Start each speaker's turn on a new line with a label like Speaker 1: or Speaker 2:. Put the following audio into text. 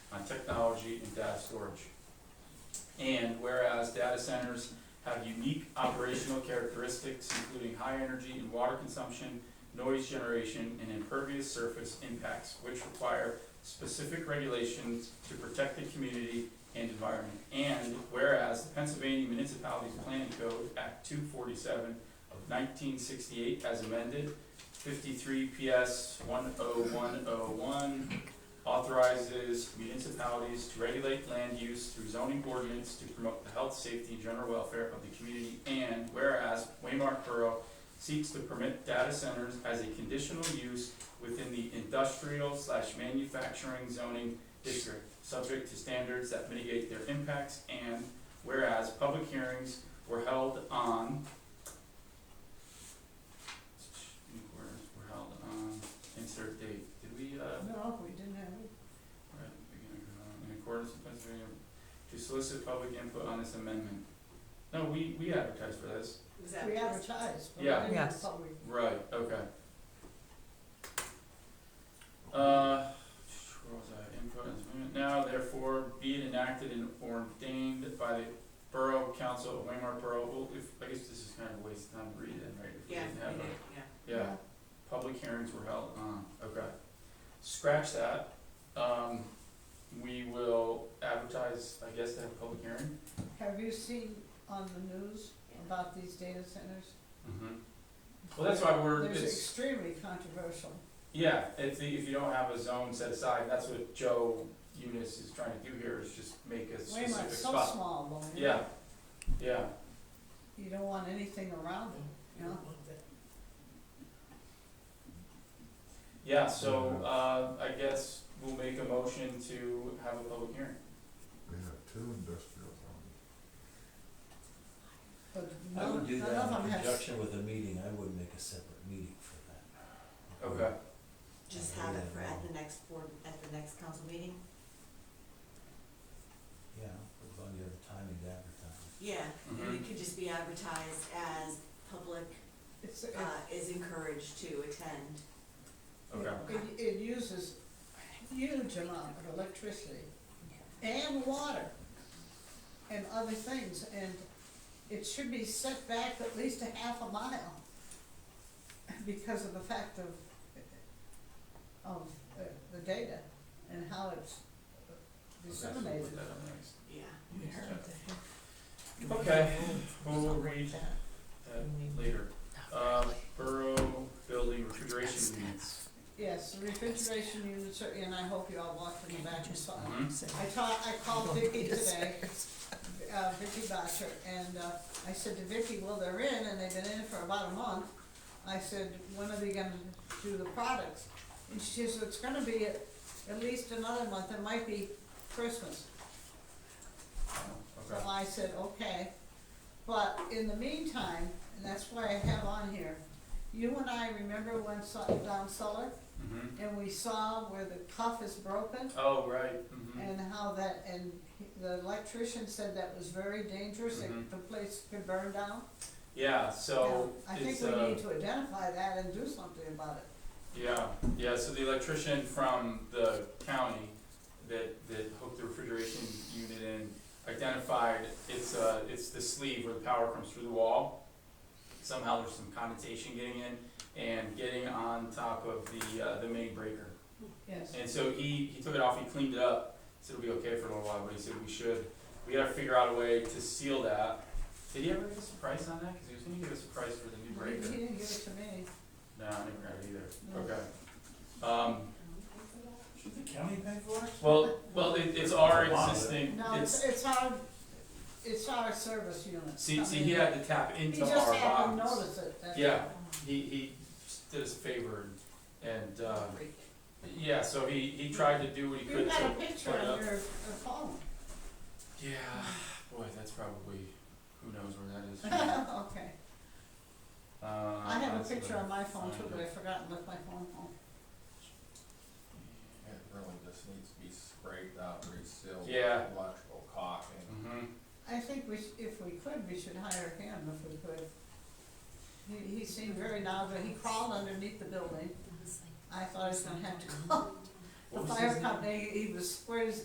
Speaker 1: technology and data storage. And whereas data centers have unique operational characteristics, including high energy and water consumption, noise generation, and impervious surface impacts, which require specific regulations to protect the community and environment. And whereas the Pennsylvania Municipalities Planning Code, Act two forty-seven of nineteen sixty-eight as amended, fifty-three PS one oh one oh one, authorizes municipalities to regulate land use through zoning ordinance to promote the health, safety, and general welfare of the community. And whereas Waymark Borough seeks to permit data centers as a conditional use within the industrial slash manufacturing zoning district, subject to standards that mitigate their impacts. And whereas public hearings were held on were were held on, insert date, did we, uh,
Speaker 2: No, we didn't have it.
Speaker 1: Right, beginning of, uh, in accordance with Pennsylvania, to solicit public input on this amendment. No, we, we advertised for this.
Speaker 2: We advertised, but we
Speaker 1: Yeah.
Speaker 2: didn't have
Speaker 3: Yes.
Speaker 2: public.
Speaker 1: Right, okay. Uh, where was I, input on this amendment, now therefore be it enacted and ordained by the Borough Council of Waymark Borough, well, if, I guess this is kind of a waste of time to read it, right? if we
Speaker 4: Yeah,
Speaker 1: didn't have a-
Speaker 4: yeah.
Speaker 1: Yeah. Public hearings were held, on. okay. Scratch that, um, we will advertise, I guess, to have a public hearing.
Speaker 2: Have you seen on the news about these data centers?
Speaker 1: Mm-hmm. Well, that's why we're,
Speaker 2: There's
Speaker 1: it's,
Speaker 2: extremely controversial.
Speaker 1: yeah, if, the- if you don't have a zone set aside, that's what Joe Eunice is trying to do here, is just make a
Speaker 2: Way much,
Speaker 1: specific
Speaker 2: so
Speaker 1: spot.
Speaker 2: small, though.
Speaker 1: Yeah, yeah,
Speaker 2: You don't want anything around them, you know?
Speaker 1: yeah, so, uh, I guess we'll make a motion to have a public hearing.
Speaker 5: We have two industrial zones.
Speaker 2: But
Speaker 6: I
Speaker 2: none,
Speaker 6: would do
Speaker 2: none
Speaker 6: that
Speaker 2: of
Speaker 6: in
Speaker 2: them have,
Speaker 6: conjunction with a meeting, I would make a separate meeting for that.
Speaker 1: Okay,
Speaker 4: Just have it for at the next board, at the next council meeting?
Speaker 6: Yeah, as long as you have the timing to advertise.
Speaker 4: Yeah, and
Speaker 1: Mhm.
Speaker 4: it could just be advertised as public,
Speaker 2: it's,
Speaker 4: uh, is encouraged to attend.
Speaker 1: okay,
Speaker 2: it, it uses a huge amount of electricity and water and other things, and it should be set back at least a half a mile because of the fact of, of uh, the data and how it's
Speaker 1: Okay, so we'll
Speaker 2: disseminated.
Speaker 1: put that on next.
Speaker 4: Yeah.
Speaker 1: Okay, we'll read that later. Uh, Borough Building Refrigeration Units.
Speaker 2: Yes, the refrigeration units are in, I hope you all walked in the back and saw. it.
Speaker 1: Mhm.
Speaker 2: I ta- I called Vicky today, uh, Vicky Botcher, and, uh, I said to Vicky, well, they're in, and they've been in for about a month. I said, when are they gonna do the products? And she says, it's gonna be at, at least another month, it might be Christmas.
Speaker 1: Oh,
Speaker 2: So I said, okay, but in the meantime, and that's why I have on here, you and I remember when Su- Don Suller,
Speaker 1: hmm
Speaker 2: and we saw where the cuff is broken?
Speaker 1: Oh, right, hmm
Speaker 2: And how that, and he- the electrician said that was very dangerous,
Speaker 1: Mhm.
Speaker 2: that the place could burn down.
Speaker 1: yeah, so
Speaker 2: Yeah, I think
Speaker 1: it's,
Speaker 2: we
Speaker 1: uh,
Speaker 2: need to identify that and do something about it.
Speaker 1: yeah, yeah, so the electrician from the county that, that hooked the refrigeration unit in identified, it's, uh, it's the sleeve where the power comes through the wall. Somehow there's some condensation getting in and getting on top of the, uh, the main breaker.
Speaker 2: Yes.
Speaker 1: And so he, he took it off, he cleaned it up, said it'll be okay for a little while, but he said we should, we gotta figure out a way to seal that. Did he ever give us a price on that? Cause he was gonna give us a price for the new
Speaker 2: He
Speaker 1: breaker.
Speaker 2: didn't give it to me.
Speaker 1: No, I never got it either.
Speaker 2: No.
Speaker 1: Okay. Um,
Speaker 6: Should the county pay for it?
Speaker 1: well, well, it, it's our
Speaker 6: It's a lot, but-
Speaker 1: existing,
Speaker 2: No, it's,
Speaker 1: it's,
Speaker 2: it's our, it's our service unit.
Speaker 1: see,
Speaker 2: I
Speaker 1: see,
Speaker 2: mean,
Speaker 1: he had to tap
Speaker 2: He
Speaker 1: into our box.
Speaker 2: just happened to notice it. that's
Speaker 1: Yeah.
Speaker 2: all.
Speaker 1: He, he did us a favor and, and, uh, yeah, so he, he tried to do what he could
Speaker 2: You've
Speaker 1: to.
Speaker 2: got a picture
Speaker 1: put it up.
Speaker 2: on your, your phone.
Speaker 1: Yeah, boy, that's probably, who knows where that is.
Speaker 2: Okay.
Speaker 1: Uh,
Speaker 2: I have a
Speaker 1: that's
Speaker 2: picture
Speaker 1: what-
Speaker 2: on my phone too,
Speaker 1: find
Speaker 2: but I
Speaker 1: it.
Speaker 2: forgot and left my phone home.
Speaker 7: It really just needs to be scraped out, resealed. with
Speaker 1: Yeah.
Speaker 7: Electrical caulk and
Speaker 1: Mhm.
Speaker 2: I think we, sh- if we could, we should hire him if we could. He, he seemed very knowledgeable, he crawled underneath the building, I thought he was gonna have to call
Speaker 1: What was
Speaker 2: the
Speaker 1: his
Speaker 2: fire
Speaker 1: name?
Speaker 2: company, he was, where is,